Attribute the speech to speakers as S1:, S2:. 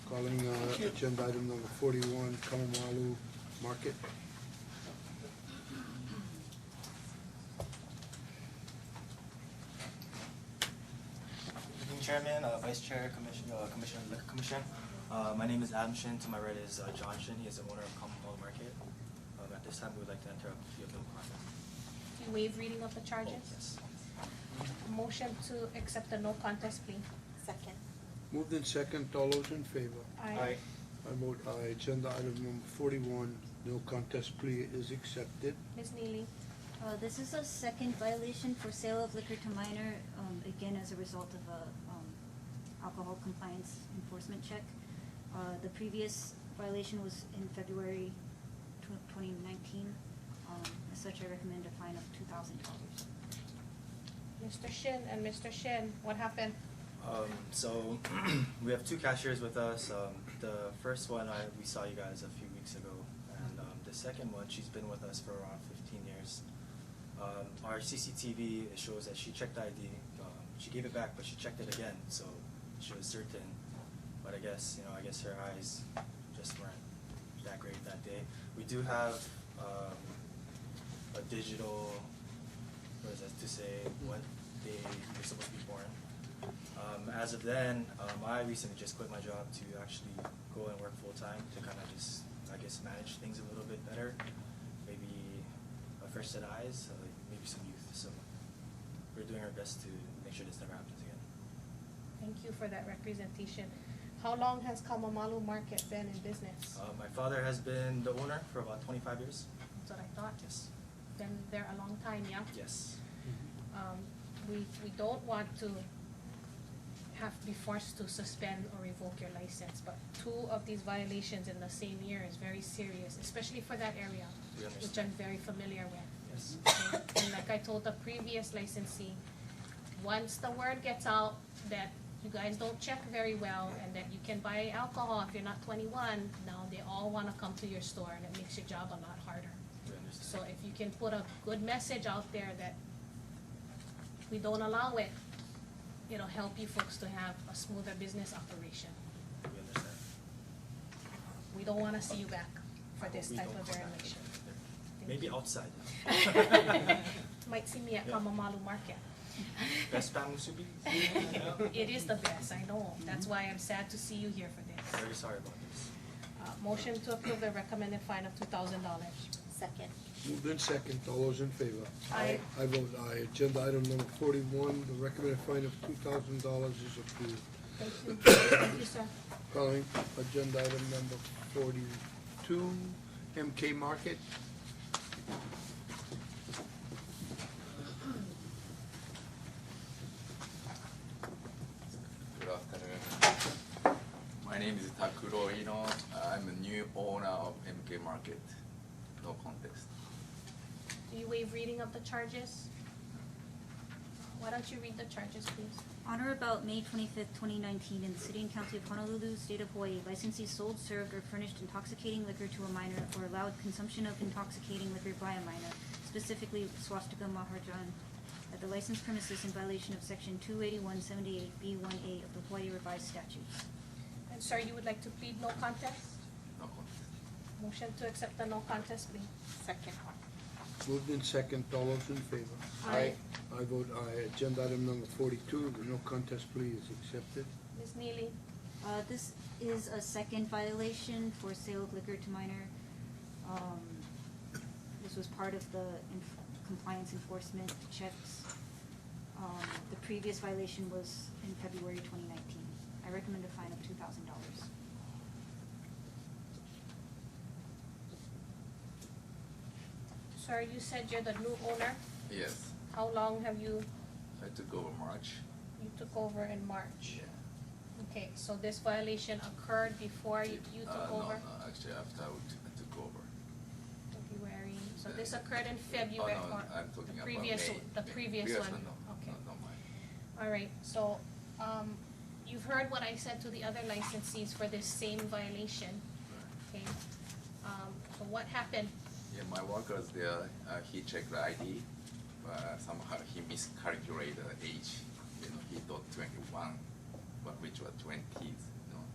S1: Calling uh, agenda item number forty-one, Kamalalu Market.
S2: Evening Chairman, uh, Vice Chair, Commissioner, uh, Commissioner, Liquor Commissioner. Uh, my name is Adam Shin, to my right is, uh, John Shin, he is the owner of Commonwealth Market. Um, at this time, we would like to enter a plea of no contest.
S3: Do you waive reading of the charges?
S2: Oh, Yes.
S3: Motion to accept the no contest plea.
S4: Second.
S1: Moved in second, all those in favor?
S3: Aye.
S1: I vote aye. Agenda item number forty-one, no contest plea is accepted.
S3: Ms. Neely,
S5: Uh, this is a second violation for sale of liquor to minor, um, again, as a result of a, um, alcohol compliance enforcement check. Uh, the previous violation was in February tw- twenty nineteen, um, as such, I recommend a fine of two thousand dollars.
S3: Mr. Shin and Mr. Shin, what happened?
S2: Um, so we have two cashiers with us. Um, the first one I we saw you guys a few weeks ago, and um, the second one she's been with us for around 15 years. Um, our CCTV it shows that she checked ID. Um, she gave it back, but she checked it again, so she was certain. But I guess you know, I guess her eyes just weren't that great that day. We do have um, a digital, what is that to say, what they were supposed to be born. Um, as of then, um, I recently just quit my job to actually go and work full time to kind of just, I guess, manage things a little bit better. Maybe a fresh set of eyes, uh, like maybe some youth. So we're doing our best to make sure this never happens again.
S3: Thank you for that representation. How long has Kamalalu Market been in business?
S2: Uh, my father has been the owner for about 25 years.
S3: That's what I thought.
S2: Yes.
S3: Been there a long time, yeah?
S2: Yes.
S3: Um, we, we don't want to have, be forced to suspend or revoke your license, but two of these violations in the same year is very serious, especially for that area,
S2: We
S3: which
S2: understand.
S3: I'm very familiar with.
S2: Yes.
S3: And- And like I told the previous licensee, once the word gets out that you guys don't check very well and that you can buy alcohol if you're not twenty-one, now they all wanna come to your store and it makes your job a lot harder.
S2: We understand.
S3: So if you can put a good message out there that we don't allow it, it'll help you folks to have a smoother business operation.
S2: we understand.
S3: We don't wanna see you back for this
S2: We
S3: type
S2: don't
S3: of
S2: come back
S3: violation.
S2: again either.
S3: Thank
S2: Maybe
S3: you.
S2: outside.
S3: Might see me at
S2: Yeah.
S3: Kamamalu Market.
S2: Best pan musubi.
S3: It is the best, I know. That's why I'm sad to see you here for this.
S2: Very sorry about this.
S3: Uh, motion to approve the recommended fine of two thousand dollars.
S4: Second.
S1: Moved in second, all those in favor?
S3: Aye.
S1: I vote aye. Agenda item number forty-one, the recommended fine of two thousand dollars is approved.
S3: Thank you. Thank you, sir.
S1: Calling agenda item number forty-two, MK Market.
S6: Good afternoon. My name is Takuro Ino. I'm a new owner of MK Market. No contest.
S3: Do you waive reading of the charges? Why don't you read the charges, please?
S5: On or about May twenty-fifth, twenty nineteen, in the city and county of Honolulu, state of Hawaii, licensee sold, served, or furnished intoxicating liquor to a minor or allowed consumption of intoxicating liquor by a minor, specifically swastika mahajan, at the licensed premises in violation of section two eighty-one seventy-eight B one A of the Hawaii revised statutes.
S3: And sir, you would like to plead no contest?
S6: No contest.
S3: Motion to accept the no contest plea.
S4: Second.
S1: Moved in second, all those in favor?
S3: Aye.
S1: I vote aye. Agenda item number forty-two, the no contest plea is accepted.
S3: Ms. Neely,
S5: Uh, this is a second violation for sale of liquor to minor. Um, this was part of the enf- compliance enforcement checks. Um, the previous violation was in February twenty nineteen. I recommend a fine of two thousand dollars.
S3: sir, you said you're the new owner.
S6: Yes,
S3: How long have you,
S6: I took over March.
S3: you took over in March?
S6: Yeah.
S3: Okay, so this violation occurred before you you
S6: Uh,
S3: took
S6: no,
S3: over?
S6: No, actually after I took- I took over.
S3: February, so
S6: Uh,
S3: this occurred in February
S6: Oh, no,
S3: or
S6: I'm talking
S3: the
S6: about
S3: previous,
S6: May.
S3: o- the
S6: May.
S3: previous
S6: Previous
S3: one?
S6: no,
S3: Okay.
S6: no, not mine.
S3: All right, so, um, you've heard what I said to the other licensees for this same violation,
S6: Right.
S3: okay? Um, so what happened?
S6: Yeah, my workers there, uh, he checked the ID, but somehow he miscalculated the age. You know, he thought twenty-one, but which was twenties.